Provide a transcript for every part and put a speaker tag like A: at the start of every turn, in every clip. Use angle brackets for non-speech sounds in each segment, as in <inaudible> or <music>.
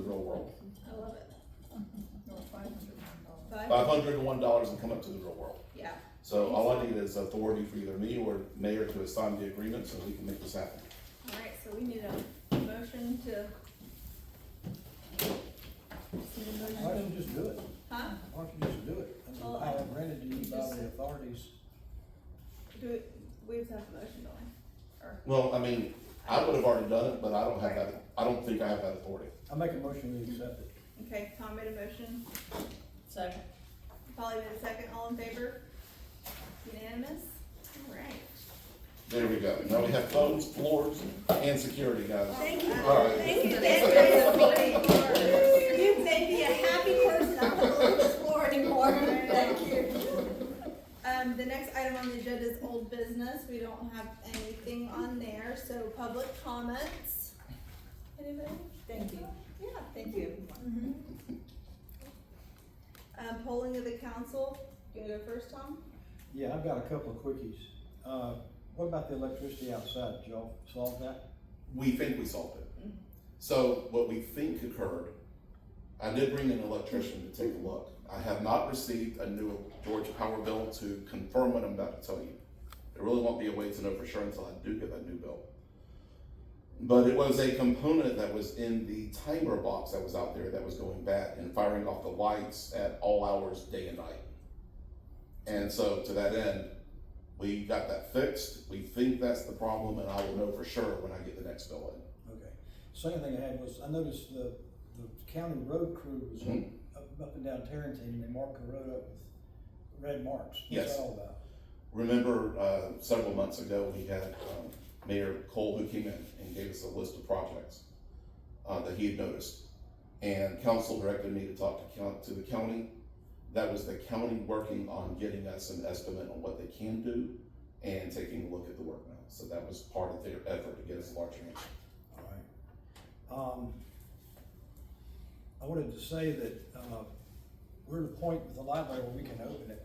A: world.
B: I love it.
C: No, five hundred one dollars.
A: Five hundred and one dollars and come up to the real world.
B: Yeah,
A: So all I need is authority for either me or mayor to assign the agreement so we can make this happen.
B: all right, so we need a motion to. Need a motion-
D: Why don't you just do it?
B: Huh?
D: Why don't you just do it? I mean, I have rented to you by the authorities.
B: Do it, we have to have a motion, don't we? Or,
A: Well, I mean, I would have already done it, but I don't have that, I don't think I have that authority.
D: I make a motion, we accept it.
B: okay, Tom made a motion,
C: Second.
B: Polly made a second, all in favor? Unanimous? All right.
A: There we go. Now we have phones, floors, and security, guys.
B: Thank you.
A: All right.
B: Thank you, thank you. You made me a happy person, I don't want to explore anymore, thank you. Um, the next item on the agenda is old business, we don't have anything on there, so public comments. Anybody? Thank you. Yeah, thank you. Um, polling of the council, you wanna go first, Tom?
D: Yeah, I've got a couple of quickies. Uh, what about the electricity outside? Did y'all solve that?
A: We think we solved it. So what we think occurred, I did bring an electrician to take a look. I have not received a new Georgia Power bill to confirm what I'm about to tell you. There really won't be a way to know for sure until I do get that new bill. But it was a component that was in the timer box that was out there that was going bad and firing off the lights at all hours, day and night. And so to that end, we got that fixed. We think that's the problem, and I will know for sure when I get the next bill in.
D: Okay. Second thing I had was, I noticed the, the county road crew was up, up and down Tarrentine and they marked the road up with red marks. What's
A: Yes.
D: that all about?
A: Remember, uh, several months ago, we had, um, Mayor Cole who came in and gave us a list of projects, uh, that he had noticed. And council directed me to talk to coun- to the county. That was the county working on getting us an estimate on what they can do and taking a look at the work now. So that was part of their effort to get us a larger answer.
D: All right. Um, I wanted to say that, uh, we're at a point with the library where we can open it.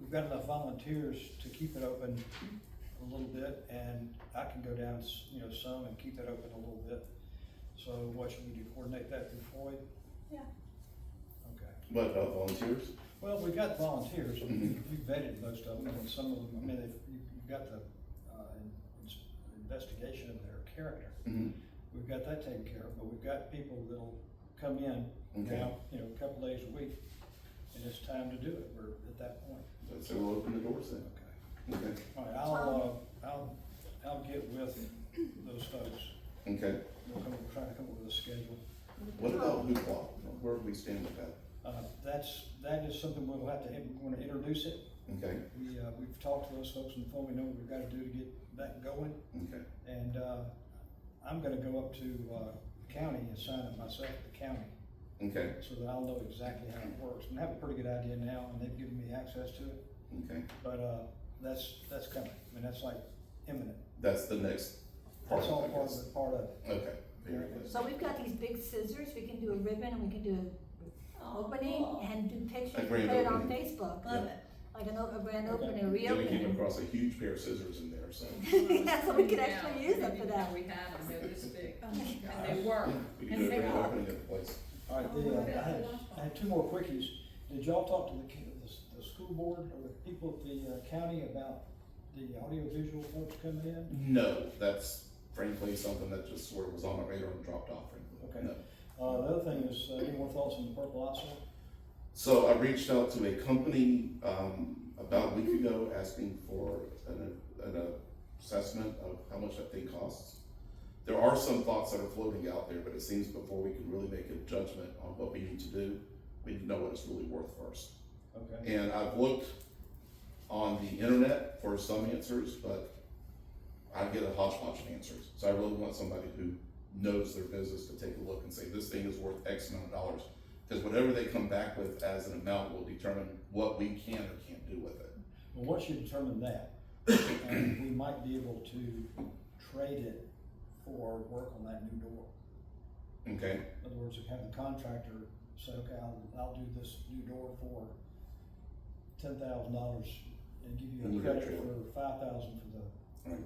D: We've got enough volunteers to keep it open a little bit, and I can go down, s- you know, some and keep it open a little bit. So what should we do, coordinate that through Floyd?
B: Yeah.
D: Okay.
A: But, uh, volunteers?
D: Well, we've got volunteers, we vetted most of them, and some of them, I mean, they've- you- you've got the, uh, in- in- investigation of their character.
A: Mhm.
D: We've got that taken care of, but we've got people that'll come in
A: Okay.
D: now, you know, a couple days a week, and it's time to do it, we're at that point.
A: So we'll open the doors then.
D: Okay.
A: Okay,
D: All right, I'll, uh, I'll, I'll get with those folks,
A: okay.
D: we'll come, we'll try to come up with a schedule.
A: What about hoopla? Where do we stand with that?
D: Uh, that's, that is something we'll have to, we're gonna introduce it,
A: Okay,
D: We, uh, we've talked to those folks on the phone, we know what we've gotta do to get that going,
A: okay.
D: and, uh, I'm gonna go up to, uh, the county and sign it myself at the county,
A: Okay,
D: so that I'll know exactly how it works, and I have a pretty good idea now, and they've given me access to it,
A: okay.
D: but, uh, that's, that's coming, I mean, that's like imminent,
A: That's the next part
D: that's all
A: of
D: part
A: this.
D: of it, part of it.
A: Okay, very good.
E: So we've got these big scissors, we can do a ribbon, and we can do
B: Oh,
E: an opening, and do pictures,
A: A
E: and
A: grand
E: put it on
A: opening.
E: Facebook.
B: Love
A: Yeah.
B: it.
E: Like an, o- a grand opening, a
A: Then we came
E: reopening.
A: across a huge pair of scissors in there, so.
E: <laughs> Yeah, so we could actually use them for that.
F: We had them, they were this big,
B: Oh my God.
F: and they work.
A: We could do a great opening of the place.
D: All right, the,
B: Oh,
D: uh,
B: yeah,
D: I had,
B: that's awful.
D: I had two more quickies. Did y'all talk to the, ca- the, s- the school board or the people at the uh, county about the audiovisual folks coming in?
A: No, that's frankly something that just sort of was on my radar and dropped off frankly.
D: Okay.
A: No.
D: Uh, the other thing is, uh, any more thoughts on the purple eyesore?
A: So I reached out to a company, um, about a week ago asking for an, an assessment of how much that thing costs. There are some thoughts that are floating out there, but it seems before we can really make a judgment on what we need to do, we need to know what it's really worth first.
D: Okay.
A: And I've looked on the internet for some answers, but I get a hodgepodge of answers. So I really want somebody who knows their business to take a look and say, this thing is worth X amount of dollars. Because whatever they come back with as an amount will determine what we can or can't do with it.
D: Well, once you determine that, um, we might be able to trade it for work on that new door.
A: Okay,
D: In other words, have the contractor say, okay, I'll, I'll do this new door for ten thousand dollars and give
A: And
D: you
A: you
D: a
A: got
D: credit
A: your-
D: for five thousand for the, for
A: Right.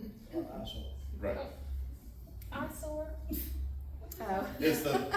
D: the, for the ISO.
A: right.
F: I saw.
E: Oh.
A: It's the,